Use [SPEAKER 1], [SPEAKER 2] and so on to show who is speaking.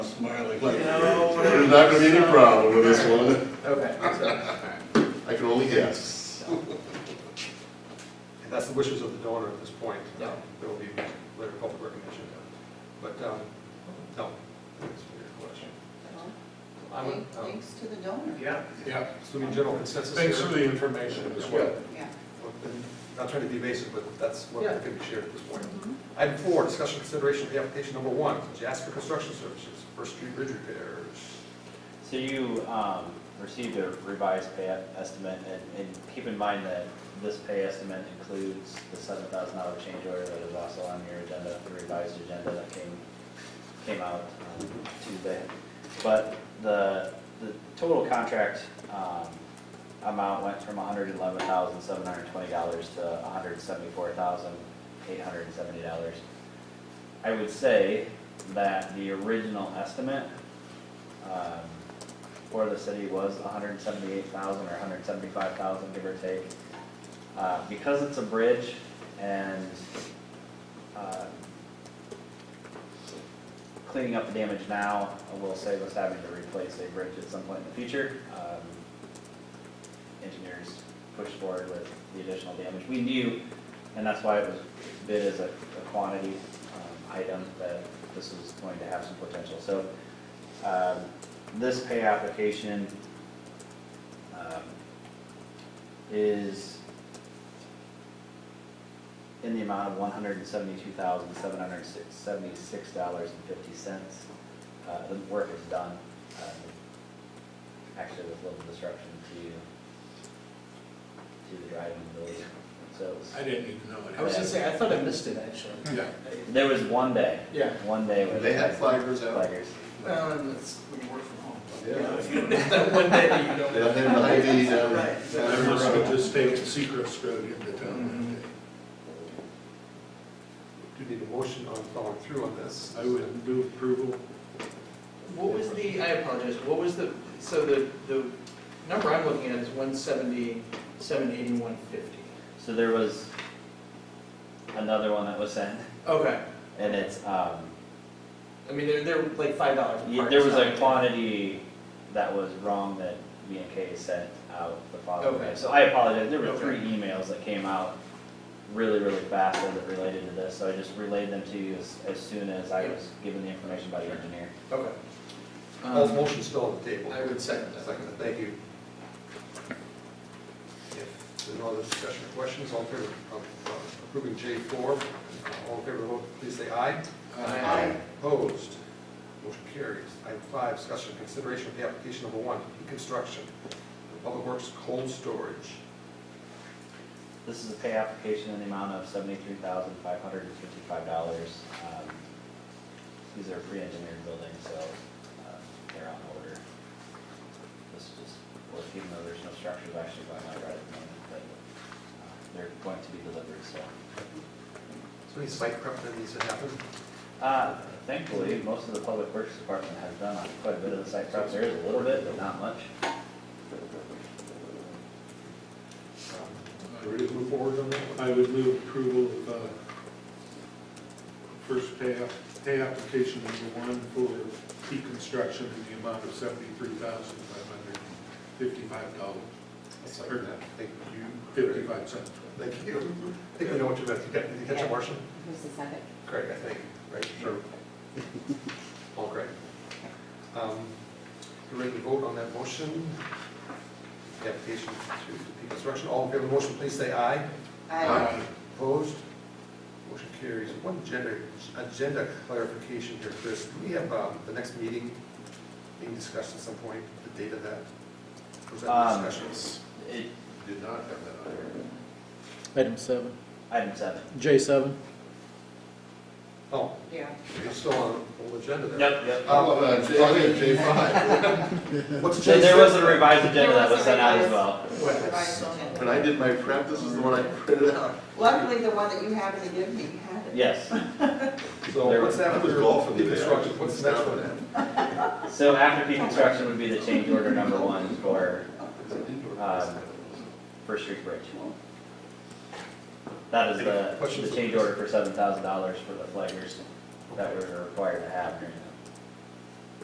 [SPEAKER 1] smiling.
[SPEAKER 2] No.
[SPEAKER 3] There's not gonna be any problem with this one,
[SPEAKER 2] Okay, so,
[SPEAKER 3] I can only guess.
[SPEAKER 4] And that's the wishes of the donor at this point.
[SPEAKER 2] Yeah.
[SPEAKER 4] Um, There will be later public recognition. But, um, no, that's your question. I'm,
[SPEAKER 5] Thank-
[SPEAKER 4] um,
[SPEAKER 5] Thanks to the donor.
[SPEAKER 2] yeah,
[SPEAKER 1] Yeah,
[SPEAKER 4] Assuming general consensus here.
[SPEAKER 1] thanks for the information as well.
[SPEAKER 5] Yeah.
[SPEAKER 4] Well, then, Not trying to be evasive, but that's what
[SPEAKER 2] Yeah.
[SPEAKER 4] can be shared at this point. Item four, discussion consideration of the application number one, Jasper Construction Services, First Street Bridge Repairs.
[SPEAKER 6] So you um, received a revised pay estimate, and- and keep in mind that this pay estimate includes the seven thousand dollar change order that is also on your agenda, the revised agenda that came, came out um, Tuesday. But the, the total contract um, amount went from hundred and eleven thousand, seven hundred and twenty dollars to hundred and seventy-four thousand, eight hundred and seventy dollars. I would say that the original estimate um, for the city was hundred and seventy-eight thousand or hundred and seventy-five thousand, give or take. Uh, because it's a bridge and, uh, cleaning up the damage now will save us having to replace a bridge at some point in the future. Um, Engineers pushed forward with the additional damage. We knew, and that's why it was bid as a a quantity um, item, that this was going to have some potential. So um, This pay application um, is in the amount of one hundred and seventy-two thousand, seven hundred and seventy-six dollars and fifty cents. Uh, The work is done. um, Actually, with little disruption to, to the driving ability, so. it was-
[SPEAKER 1] I didn't even know it.
[SPEAKER 2] I was gonna say, I thought I missed it, actually.
[SPEAKER 1] Yeah,
[SPEAKER 6] There was one day,
[SPEAKER 2] Yeah,
[SPEAKER 6] one day where.
[SPEAKER 3] They had flaggers out.
[SPEAKER 6] Flaggers.
[SPEAKER 2] well, and Um, it's, when you work from home.
[SPEAKER 3] Yeah.
[SPEAKER 2] Yeah. One day that you
[SPEAKER 3] They
[SPEAKER 2] don't.
[SPEAKER 3] don't have an ID, down
[SPEAKER 2] Right.
[SPEAKER 3] down
[SPEAKER 1] I
[SPEAKER 3] every
[SPEAKER 1] must have
[SPEAKER 3] road.
[SPEAKER 1] just taken Seacrest Road into town
[SPEAKER 4] Do you need a motion on following through on this?
[SPEAKER 1] that day. I would do approval.
[SPEAKER 2] What was the, I apologize, what was the, so the, the number I'm looking at is one seventy, seven eighty, one fifty.
[SPEAKER 6] So there was another one that was sent,
[SPEAKER 2] Okay,
[SPEAKER 6] and it's, um,
[SPEAKER 2] I mean, they're, they're like five dollars
[SPEAKER 6] yeah, there was a quantity that was wrong that B and K sent out the following
[SPEAKER 2] Okay.
[SPEAKER 6] day. So I apologize, there were
[SPEAKER 2] Okay.
[SPEAKER 6] three emails that came out really, really fast that related to this, so I just relayed them to you as, as soon as I
[SPEAKER 2] Yeah.
[SPEAKER 6] was given the information by the engineer.
[SPEAKER 2] Okay.
[SPEAKER 4] Paul's
[SPEAKER 2] Um,
[SPEAKER 4] motion still on the table.
[SPEAKER 2] I would second that.
[SPEAKER 4] Second, thank you. If there's no other discussion or questions, all in favor of uh, approving J four, all in favor, vote, please say aye.
[SPEAKER 2] Aye.
[SPEAKER 4] Opposed, motion carries. Item five, discussion and consideration of the application number one, Peak Construction, Public Works Cold Storage.
[SPEAKER 6] This is a pay application in the amount of seventy-three thousand, five hundred and fifty-five dollars. Um, These are pre-engineered buildings, so uh, they're on order. This is just, well, even though there's no structures actually going out right at the moment, but uh, they're going to be delivered, so.
[SPEAKER 4] So any site prep that needs to happen?
[SPEAKER 6] Uh, Thankfully, most of the public works department has done quite a bit of the site prep. There is a little bit, but not much.
[SPEAKER 4] Um, Ready to move forward on that one?
[SPEAKER 1] I would move approval of, uh, first pay, app- pay application number one for T construction in the amount of seventy-three thousand five hundred fifty-five dollars,
[SPEAKER 4] I'll second that. Thank you.
[SPEAKER 1] fifty-five cents.
[SPEAKER 4] Thank you. I think we know what you meant. You got- Did you catch it, Marcia?
[SPEAKER 5] Who's the second?
[SPEAKER 4] Craig, I think, right? Sure. Paul Craig. Um, You ready to vote on that motion? The application to the construction, all in favor of the motion, please say aye.
[SPEAKER 5] Aye.
[SPEAKER 4] Opposed? Motion carries. One agenda, agenda clarification here, Chris. Do we have um, the next meeting being discussed at some point, the date of that? Was that
[SPEAKER 6] Um,
[SPEAKER 4] discussions?
[SPEAKER 6] It-
[SPEAKER 3] Did not have that on here.
[SPEAKER 7] Item seven,
[SPEAKER 6] Item seven.
[SPEAKER 7] J seven.
[SPEAKER 4] Oh,
[SPEAKER 5] Yeah.
[SPEAKER 4] you're still on the whole agenda there.
[SPEAKER 6] Yep, yep.
[SPEAKER 3] How about, uh, J- I think J five,
[SPEAKER 4] What's
[SPEAKER 6] So
[SPEAKER 4] Jay's-
[SPEAKER 6] there was a revised agenda
[SPEAKER 5] There
[SPEAKER 6] that
[SPEAKER 5] was
[SPEAKER 6] was
[SPEAKER 5] a
[SPEAKER 6] sent out as
[SPEAKER 5] revised-
[SPEAKER 6] well.
[SPEAKER 5] Revised agenda.
[SPEAKER 3] when I did my prep, this is the one I printed out.
[SPEAKER 5] Luckily, the one that you happened to give me had it.
[SPEAKER 6] Yes.
[SPEAKER 4] So
[SPEAKER 6] There
[SPEAKER 4] what's
[SPEAKER 3] was- I
[SPEAKER 4] after
[SPEAKER 3] was golfing
[SPEAKER 4] the
[SPEAKER 3] today.
[SPEAKER 4] construction, what's the next one?
[SPEAKER 6] So after deconstruction would be the change order number one for Um, First Street Bridge. That is the,
[SPEAKER 4] Questions?
[SPEAKER 6] the change order for seven thousand dollars for the flaggers that we were required to have during the